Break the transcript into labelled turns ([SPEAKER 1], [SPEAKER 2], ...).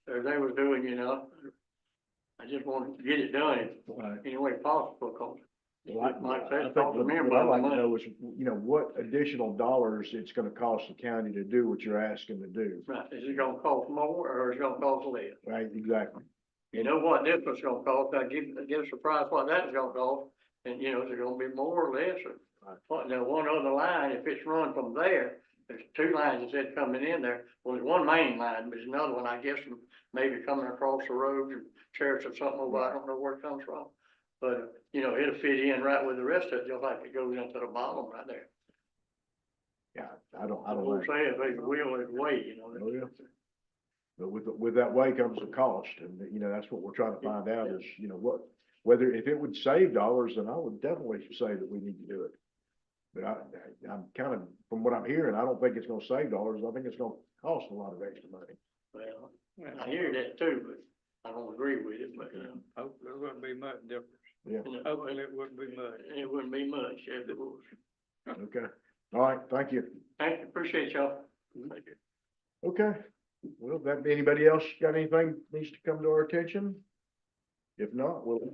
[SPEAKER 1] as they was doing, you know. I just wanted to get it done
[SPEAKER 2] Right.
[SPEAKER 1] any way possible, cause
[SPEAKER 2] Well, Uh, I-
[SPEAKER 1] Like I said,
[SPEAKER 2] I think
[SPEAKER 1] talk to
[SPEAKER 2] what-
[SPEAKER 1] me
[SPEAKER 2] what
[SPEAKER 1] about
[SPEAKER 2] I'd
[SPEAKER 1] the
[SPEAKER 2] like to
[SPEAKER 1] money.
[SPEAKER 2] know is, you know, what additional dollars it's gonna cost the county to do what you're asking to do,
[SPEAKER 1] right, is it gonna cost more or is it gonna cost less?
[SPEAKER 2] right? Exactly.
[SPEAKER 1] You know what this was gonna cost, I give, give us a price what that was gonna cost, and you know, is it gonna be more or less or?
[SPEAKER 2] Right.
[SPEAKER 1] What, now, one other line, if it's run from there, there's two lines that said coming in there, well, there's one main line, but there's another one, I guess, from maybe coming across the road and church or something, over. I don't know where it comes from. But, you know, it'll fit in right with the rest of it, just like it goes into the bottom right there.
[SPEAKER 2] Yeah, I don't, I
[SPEAKER 1] I
[SPEAKER 2] don't
[SPEAKER 1] will
[SPEAKER 2] know.
[SPEAKER 1] say, if it's will, it's way, you know.
[SPEAKER 2] Oh, yeah. But with, with that way comes the cost, and, you know, that's what we're trying to find out is, you know, what, whether, if it would save dollars, then I would definitely say that we need to do it. But I, I- I'm kind of, from what I'm hearing, I don't think it's gonna save dollars, I think it's gonna cost a lot of extra money.
[SPEAKER 1] Well, I hear that too, but I don't agree with it, but, you know.
[SPEAKER 3] Hope there wouldn't be much difference.
[SPEAKER 1] you know,
[SPEAKER 3] Hopefully it wouldn't be much.
[SPEAKER 1] It wouldn't be much, if it was.
[SPEAKER 2] Okay, all right, thank you.
[SPEAKER 1] Thank you, appreciate y'all.
[SPEAKER 2] Okay, well, that, anybody else got anything needs to come to our attention? If not, we'll